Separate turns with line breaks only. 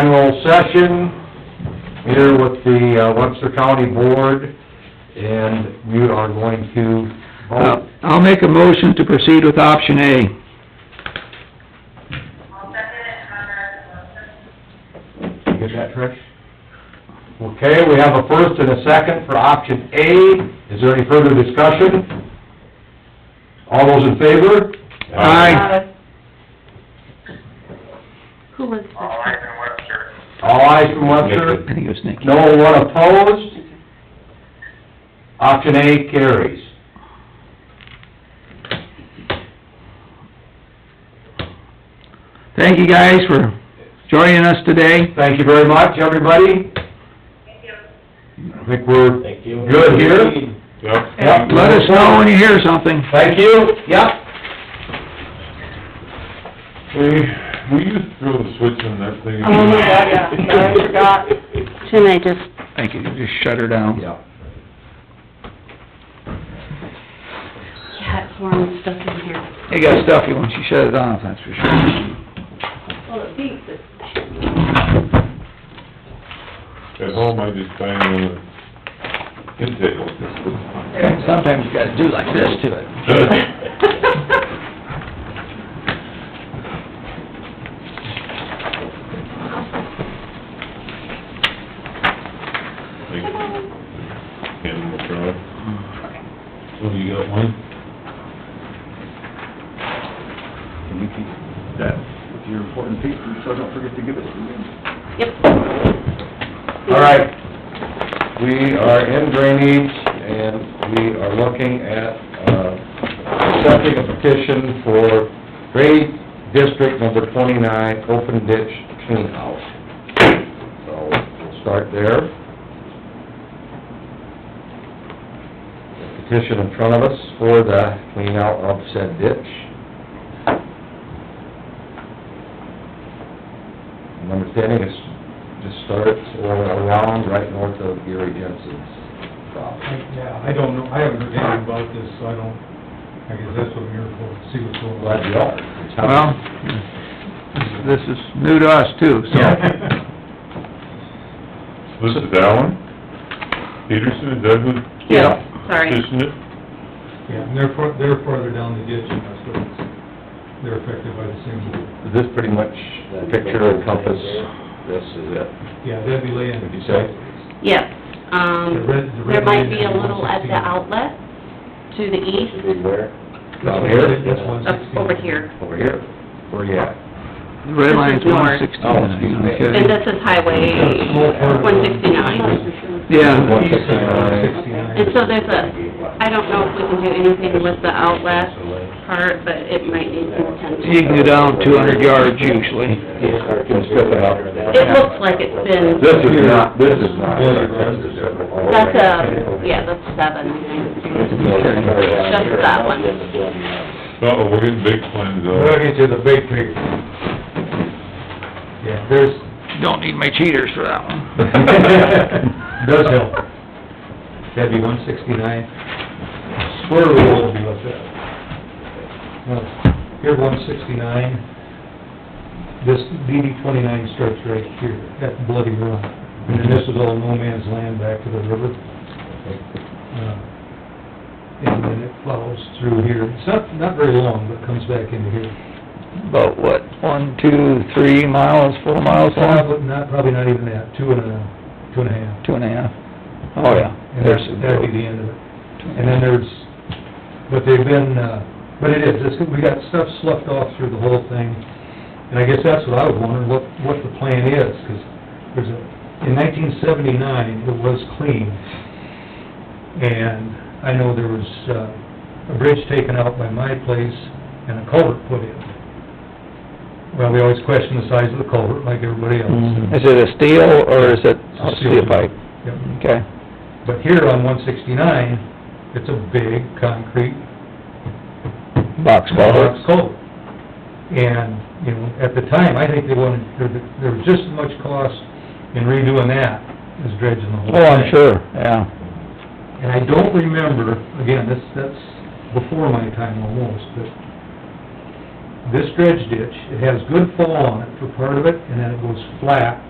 general session here with the uh, Webster County Board, and we are going to
Uh,
vote.
I'll make a motion to proceed with option A.
I'll second it, Conrad Wilson.
You get that, Trish? Okay, we have a first and a second for option A. Is there any further discussion? All those in favor?
Aye.
Who was
All eyes in Webster.
All ayes from
I
Webster,
think it was Nicky.
no one opposed. Option A carries.
Thank you guys for joining us today.
Thank you very much, everybody.
Thank you.
I think we're
Thank you.
good here.
Yep.
Yep.
Let us know when you hear something.
Thank you, yep.
Hey, will you throw the switch on that thing?
Oh, my God, yeah. I forgot. Shouldn't I just
I could just shut her down.
Yeah.
cat form stuff in here?
You got stuffy once you shut it off, that's for sure.
Well, it beeps, it's
At home, I just bang on the intake like
Sometimes you gotta do like this to it.
Animal control. So you got one?
Can you keep that with your important papers, so I don't forget to give it to you?
All right, we are in drainage, and we are looking at, uh, accepting a petition for grade district number twenty-nine, open ditch cleanout. So, we'll start there. The Petition in front of us for the cleanout of said ditch. My understanding is just starts or around right north of Gary Jensen's property.
I- Yeah, I don't know, I haven't heard anything about this, so I don't, I guess that's what we're for, see what's going
Glad
on.
you are. It's how-
Well, this is new to us too, so.
This is Allen, Peterson, and Douglas
Yeah.
Sorry.
petitioned it.
Yeah, and they're far, they're farther down the ditch, and that's what it's, they're affected by the same,
Is this pretty much the picture and compass? This is it.
yeah, that'd be laying.
What'd you say?
Yes,
The red- the
um,
red
there might
line
be a
is
little at the
116.
outlet to the east,
where?
That's
Down
one-
here?
That's one
up
sixteen.
over here.
Over here. Where you at?
The red line's
This is north.
one
Oh, excuse me.
sixty-nine,
And
okay.
this is Highway one sixty-nine.
Yeah,
One sixty-nine.
169.
And so there's a, I don't know if we can do anything with the outlet part, but it might need some
you
attention.
can go down two hundred yards usually.
Can strip it up.
It looks like it's been,
This is not, this is not.
that's a, yeah, that's seven, I think. Just that one.
Uh-oh, we're getting big plans
We'll
out.
get to the big picture. Yeah, there's,
Don't need my cheaters for that one.
does help. That'd be one sixty-nine. Swear we will be with that. No, Here, one sixty-nine, this DD twenty-nine starts right here, that bloody run. And then this is all no man's land back to the river. Uh, And then it flows through here. It's not, not very long, but comes back into here.
About what, one, two, three miles, four miles long?
Probably not, probably not even that, two and a, two and a half.
Two and a half? Oh, yeah.
And
There's the
that's- that'd be
road.
the end of it. And then there's, but they've been, uh, but it is, it's, we got stuff sloughed off through the whole thing. And I guess that's what I was wondering, what, what the plan is, 'cause there's a, in nineteen seventy-nine, it was clean. And I know there was, uh, a bridge taken out by my place and a culvert put in. Well, we always question the size of the culvert like everybody else.
Mm-hmm. Is it a steel or is it a
It's
steel pipe?
Yep.
Okay.
But here on one sixty-nine, it's a big concrete
Box
box
culvert?
culvert. And, you know, at the time, I think they wanted, there, there was just as much cost in redoing that as dredging the whole thing.
Oh, I'm sure, yeah.
And I don't remember, again, this, that's before my time almost, but this dredge ditch, it has good fall on it for part of it, and then it goes flat,